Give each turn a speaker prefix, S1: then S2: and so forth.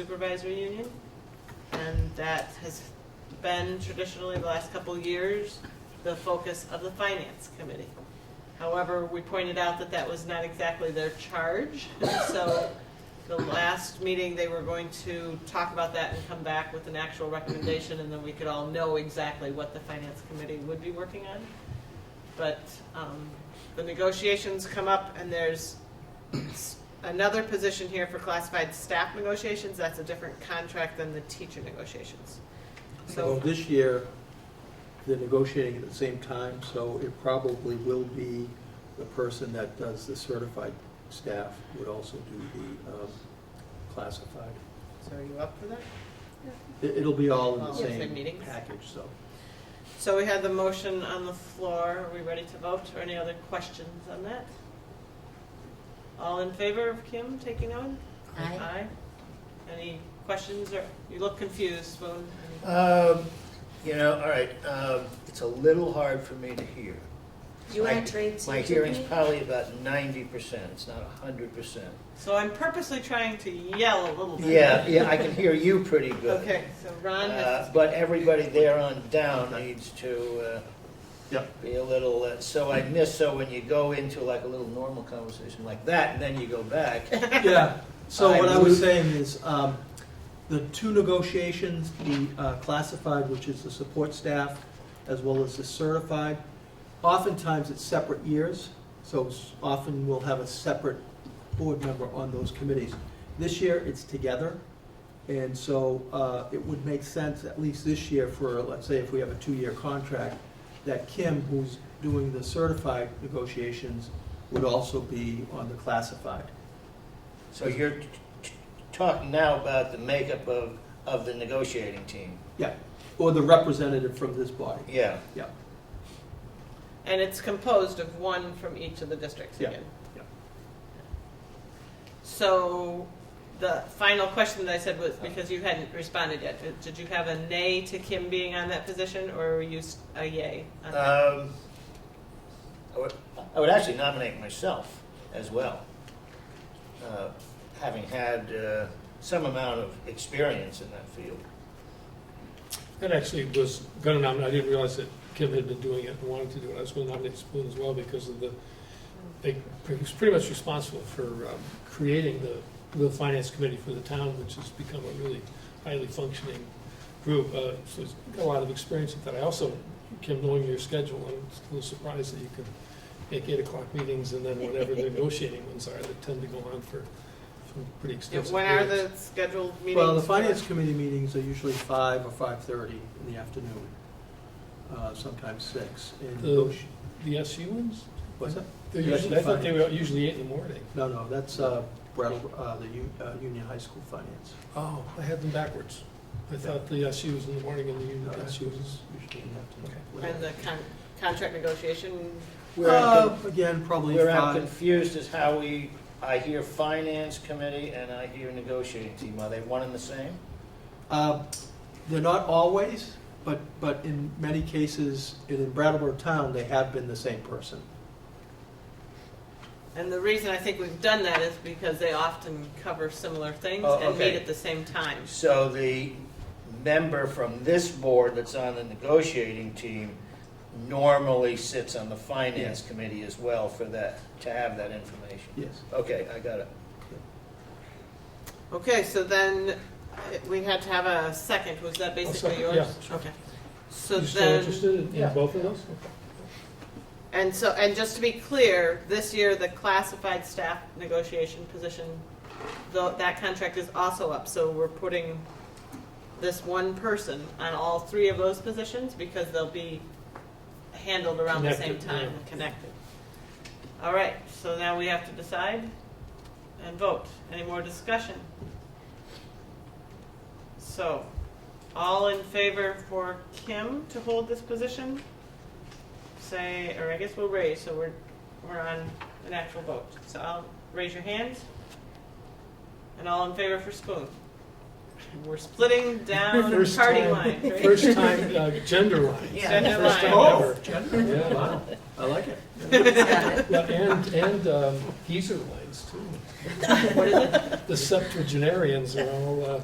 S1: supervisor union. And that has been traditionally the last couple years, the focus of the finance committee. However, we pointed out that that was not exactly their charge. And So the last meeting, they were going to talk about that and come back with an actual recommendation and then we could all know exactly what the finance committee would be working on. But um, the negotiations come up and there's another position here for classified staff negotiations, that's a different contract than the teacher negotiations.
S2: Well,
S1: So,
S2: this year, they're negotiating at the same time, so it probably will be the person that does the certified staff would also do the um, classified.
S1: so are you up for that?
S2: It- It'll be all in
S1: All
S2: the
S1: in the same
S2: same
S1: meetings?
S2: package, so.
S1: So we had the motion on the floor, are we ready to vote, or any other questions on that? All in favor of Kim taking on?
S3: Aye.
S1: Any questions, or, you look confused, well,
S4: Um, you know, all right, um, it's a little hard for me to hear.
S3: You
S4: My-
S3: are trained
S4: My
S3: superintendent?
S4: hearing's probably about ninety percent, it's not a hundred percent.
S1: so I'm purposely trying to yell a little bit.
S4: Yeah, yeah, I can hear you pretty good.
S1: Oh Okay, so Ron
S4: Uh,
S1: has,
S4: but everybody there on down needs to, uh,
S2: Yep.
S4: be a little, uh, so I miss, so when you go into like a little normal conversation like that, and then you go back,
S2: Yeah, so what I was
S4: I-
S2: saying is, um, the two negotiations, the uh, classified, which is the support staff, as well as the certified, oftentimes it's separate years, so s- often we'll have a separate board member on those committees. This year, it's together, and so uh, it would make sense, at least this year, for, let's say, if we have a two-year contract, that Kim, who's doing the certified negotiations, would also be on the classified.
S4: so you're t- t- talking now about the makeup of, of the negotiating team,
S2: Or the representative from this body.
S4: yeah.
S1: and it's composed of one from each of the districts
S2: Yeah,
S1: again.
S2: yeah.
S1: So, the final question that I said was, because you hadn't responded yet, did- did you have a nay to Kim being on that position, or were you s- a yay? on that?
S4: Um, I would, I would actually nominate myself as well, uh, having had uh, some amount of experience in that field.
S5: That actually was gonna nominate, I didn't realize that Kim had been doing it and wanted to do it. I was gonna nominate Spoon as well because of the, they, he was pretty much responsible for um, creating the, the finance committee for the town, which has become a really highly functioning group. Uh, So he's got a lot of experience with that. I also, Kim, knowing your schedule, I'm just a little surprised that you can make eight o'clock meetings and then whatever the negotiating ones are that tend to go on for, for pretty
S1: Yeah,
S5: extensive
S1: When are
S5: periods.
S1: the scheduled meetings?
S2: Well, the
S1: for-
S2: finance committee meetings are usually five or five-thirty in the afternoon, uh, sometimes six. And
S5: The-
S2: negoti-
S5: The SU ones?
S2: What's that?
S5: They're usually, I thought they were usually eight in the morning.
S2: No, no, that's uh, Brattle, uh, the U- uh, Union High School Finance.
S5: Oh, I had them backwards. I thought the SU was in the morning and the
S2: No,
S5: union
S2: that's
S5: SU was.
S2: usually in the
S1: And
S2: afternoon.
S1: the con- contract negotiation,
S4: We're,
S2: Uh,
S4: I'm con-
S2: Again, probably
S4: we're I'm
S2: five.
S4: confused as how we, I hear finance committee and I hear negotiating team. Are they one and the same?
S2: Uh, They're not always, but, but in many cases, and in Brattleboro Town, they have been the same person.
S1: and the reason I think we've done that is because they often cover similar things
S4: Oh,
S1: and meet
S4: okay.
S1: at the same time.
S4: So the member from this board that's on the negotiating team normally sits on the finance committee as well for that, to have that information.
S2: Yes.
S4: Okay, I got it.
S1: Okay, so then uh, we had to have a second, was that basically
S5: second,
S1: yours?
S5: yeah, sure.
S1: Okay. So
S5: You still
S1: then,
S5: interested in- in both of those?
S1: and so, and just to be clear, this year, the classified staff negotiation position, though, that contract is also up, so we're putting this one person on all three of those positions because they'll be handled around the same
S5: Connected,
S1: time,
S5: yeah.
S1: connected. All right, so now we have to decide and vote. Any more discussion? So, all in favor for Kim to hold this position? Say, or I guess we'll raise, so we're, we're on an actual vote. So I'll raise your hands. And all in favor for Spoon? We're splitting down
S5: First
S1: party
S5: time.
S1: lines, right?
S5: First time, uh, gender lines.
S1: Yeah.
S5: First
S1: Gender lines.
S5: time
S1: Oh.
S5: ever.
S2: Gender, wow, I like it.
S5: Yeah, And, and um, geezer lines too.
S1: What is it?
S5: The septuagenarians are all, uh,